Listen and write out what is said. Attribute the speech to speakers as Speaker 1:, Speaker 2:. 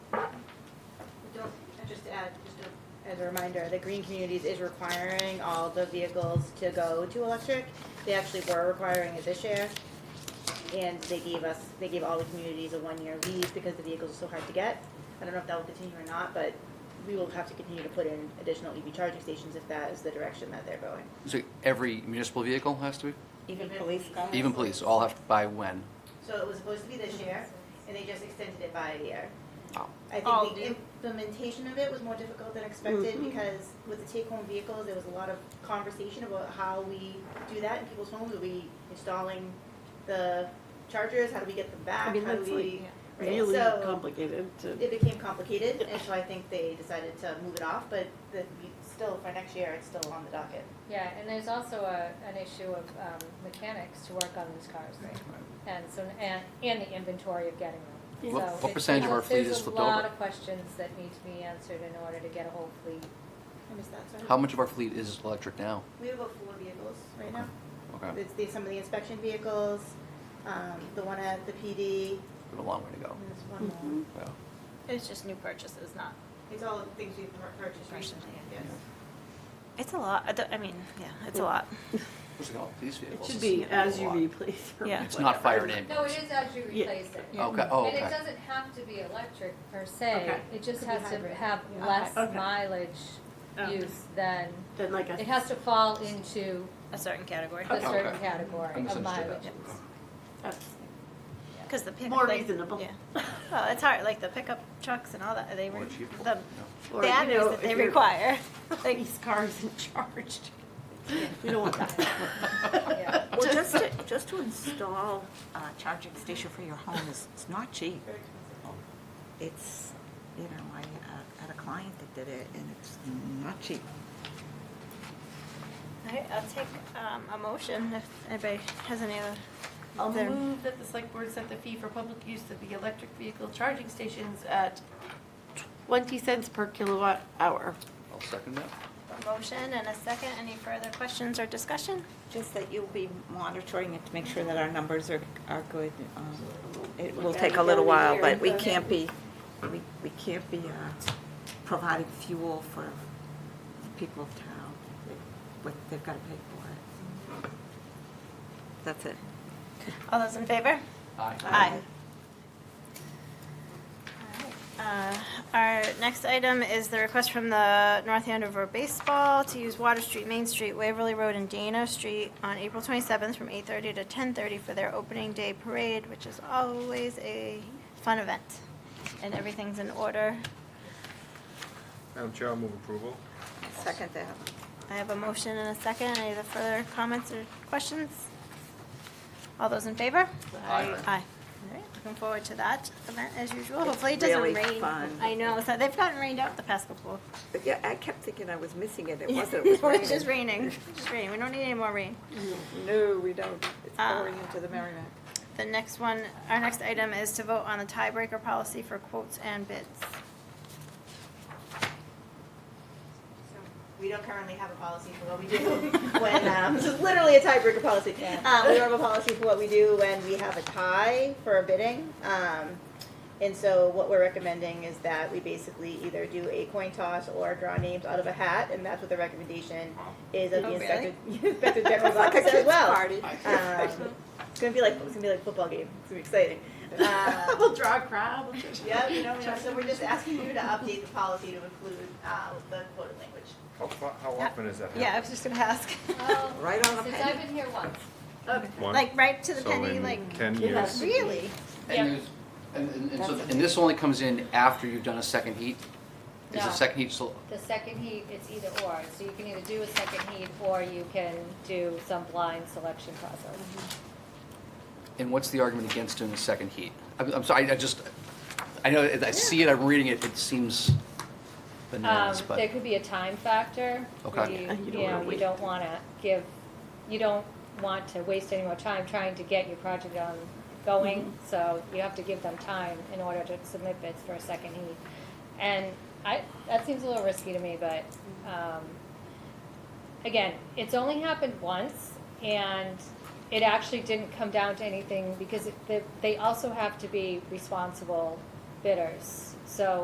Speaker 1: add just a,
Speaker 2: As a reminder, the Green Communities is requiring all the vehicles to go to electric. They actually were requiring it this year. And they gave us, they gave all the communities a one-year lease because the vehicles are so hard to get. I don't know if that will continue or not, but we will have to continue to put in additional EV charging stations if that is the direction that they're going.
Speaker 3: So every municipal vehicle has to be?
Speaker 4: Even police cars?
Speaker 3: Even police, all have to buy when?
Speaker 2: So it was supposed to be this year, and they just extended it by a year.
Speaker 3: Oh.
Speaker 2: I
Speaker 1: All
Speaker 2: think the
Speaker 1: do.
Speaker 2: implementation of it was more difficult than expected
Speaker 4: Mm-hmm.
Speaker 2: because with the take-home vehicles, there was a lot of conversation about how we do that in people's homes. Are we installing the chargers? How do we get them back?
Speaker 4: I mean,
Speaker 2: How do
Speaker 4: that's
Speaker 2: we-
Speaker 4: like
Speaker 2: right,
Speaker 4: Really
Speaker 2: so-
Speaker 4: complicated to,
Speaker 2: it became complicated, and so I think they decided to move it off, but the, we- still, for next year, it's still on the docket.
Speaker 5: Yeah, and there's also a, an issue of um, mechanics to work on these cars. And so, and, and the inventory of getting
Speaker 3: What-
Speaker 5: them. So
Speaker 3: what
Speaker 5: it's-
Speaker 3: percentage of our fleet is flipped
Speaker 5: There's a lot
Speaker 3: over?
Speaker 5: of questions that need to be answered in order to get a whole fleet.
Speaker 2: I missed that, sorry.
Speaker 3: How much of our fleet is electric now?
Speaker 2: We have about four vehicles right now.
Speaker 3: Okay,
Speaker 2: It's the, some of the inspection vehicles, um, the one at the PD,
Speaker 3: we have a long way to go.
Speaker 2: and there's one more.
Speaker 6: Mm-hmm.
Speaker 3: Yeah.
Speaker 1: it's just new purchases, not,
Speaker 2: It's all things we've pur- purchased recently, yes.
Speaker 1: it's a lot, I don't- I mean, yeah, it's a lot.
Speaker 3: What's it called? These
Speaker 4: it
Speaker 3: vehicles?
Speaker 4: should
Speaker 3: It's
Speaker 4: be
Speaker 3: a
Speaker 4: as you
Speaker 3: lot.
Speaker 4: replace. or
Speaker 1: Yeah.
Speaker 3: It's not fire
Speaker 4: whatever.
Speaker 3: and
Speaker 5: No, it
Speaker 3: ambulance.
Speaker 5: is as you
Speaker 4: Yeah.
Speaker 5: replace it.
Speaker 1: Yeah.
Speaker 3: Okay, oh,
Speaker 5: And it
Speaker 3: okay.
Speaker 5: doesn't have to be electric per se,
Speaker 4: Okay.
Speaker 5: it
Speaker 2: Could
Speaker 5: just
Speaker 2: be
Speaker 5: has to
Speaker 2: hybrid.
Speaker 5: have
Speaker 2: Yeah.
Speaker 5: less
Speaker 4: Okay.
Speaker 5: mileage
Speaker 4: Oh.
Speaker 5: use than,
Speaker 4: Then like
Speaker 5: it
Speaker 4: a,
Speaker 5: has to fall into
Speaker 1: A certain category.
Speaker 5: a certain
Speaker 3: Okay. I
Speaker 5: category of
Speaker 3: misunderstood
Speaker 5: mileage.
Speaker 3: that.
Speaker 4: that's
Speaker 1: Cause the pickup.
Speaker 4: more
Speaker 1: like-
Speaker 4: reasonable.
Speaker 1: Yeah, well, it's hard, like the pickup trucks and all that, they,
Speaker 3: More
Speaker 1: re-
Speaker 3: achievable.
Speaker 1: the
Speaker 3: Yeah.
Speaker 4: Or, you
Speaker 1: batteries
Speaker 4: know,
Speaker 1: that
Speaker 4: if
Speaker 1: they
Speaker 4: your
Speaker 1: require, like,
Speaker 4: Police cars and charged. We don't want that.
Speaker 5: Yeah.
Speaker 7: Well, just to, just to install a charging station for your home is, it's not cheap.
Speaker 2: Very expensive.
Speaker 7: It's, you know, I uh, had a client that did it and it's not cheap.
Speaker 1: I- I'll take, um, a motion if anybody has any other.
Speaker 6: I'll
Speaker 1: There.
Speaker 6: move that the select board set the fee for public use of the electric vehicle charging stations at twenty cents per kilowatt hour.
Speaker 3: I'll second that.
Speaker 1: Motion and a second, any further questions or discussion?
Speaker 7: Just that you'll be monitoring it to make sure that our numbers are, are good. Um, It will take a little while, but we can't be, we, we can't be uh, providing fuel for the people of town. What, they've got to pay for it. That's it.
Speaker 1: All those in favor?
Speaker 3: Aye.
Speaker 1: Uh, Our next item is the request from the North Andover Baseball to use Water Street, Main Street, Waverly Road, and Dana Street on April 27th from 8:30 to 10:30 for their opening day parade, which is always a fun event. And everything's in order.
Speaker 8: Madam Chair, I'll move approval.
Speaker 7: Second that.
Speaker 1: I have a motion and a second. Any other further comments or questions? All those in favor?
Speaker 3: Aye.
Speaker 1: Aye. All right, looking forward to that event as usual. Hopefully it
Speaker 7: It's
Speaker 1: doesn't
Speaker 7: really
Speaker 1: rain.
Speaker 7: fun.
Speaker 1: I know, so they've gotten rained out the past couple.
Speaker 7: But yeah, I kept thinking I was missing it. It wasn't. It
Speaker 1: It's
Speaker 7: was
Speaker 1: just
Speaker 7: raining.
Speaker 1: raining, It's just raining. We don't need any more rain.
Speaker 7: No, we don't. It's
Speaker 1: Ah.
Speaker 7: pouring into the Merrimack.
Speaker 1: The next one, our next item is to vote on the tiebreaker policy for quotes and bids.
Speaker 2: So We don't currently have a policy for what we do when, um, this is literally a tiebreaker policy. Um, we don't have a policy for what we do when we have a tie for a bidding. Um, and so what we're recommending is that we basically either do a coin toss or draw names out of a hat, and that's what the recommendation is of the
Speaker 1: Oh,
Speaker 2: inspector, inspector general's
Speaker 7: Like a
Speaker 2: office as
Speaker 7: kid's
Speaker 2: well.
Speaker 7: party.
Speaker 2: Um, it's gonna be like, it's gonna be like a football game, it's gonna be exciting. Uh,
Speaker 4: We'll draw a crowd.
Speaker 2: Yeah, you don't know, so we're just asking you to update the policy to include, uh, the quoted language.
Speaker 8: How, fa- how often is that?
Speaker 1: Yeah, I was just gonna ask,
Speaker 5: Well,
Speaker 7: Right on the
Speaker 5: Since
Speaker 7: penny.
Speaker 5: I've been here once.
Speaker 8: One?
Speaker 1: like right to the
Speaker 8: So
Speaker 1: penny,
Speaker 8: in
Speaker 1: like,
Speaker 8: Ten years.
Speaker 1: really?
Speaker 5: Yeah.
Speaker 3: And there's, and, and, and so, and this only comes in after you've done a second heat? Is
Speaker 5: No.
Speaker 3: the second heat still,
Speaker 5: The second heat, it's either or, so you can either do a second heat or you can do some blind selection process.
Speaker 3: and what's the argument against doing a second heat? I'm, I'm sorry, I just, I know, I I see it, I'm reading it, it seems bananas,
Speaker 5: Um,
Speaker 3: but.
Speaker 5: There could be a time factor. where
Speaker 3: Okay.
Speaker 5: you-
Speaker 4: Yeah, you don't
Speaker 5: You know,
Speaker 4: wanna
Speaker 5: you
Speaker 4: wait.
Speaker 5: don't want to give, you don't want to waste any more time trying to get your project on going,
Speaker 4: Mm-hmm.
Speaker 5: so you have to give them time in order to submit bids for a second heat. And I, that seems a little risky to me, but, um, again, it's only happened once, and it actually didn't come down to anything, because it- they- they also have to be responsible bidders. So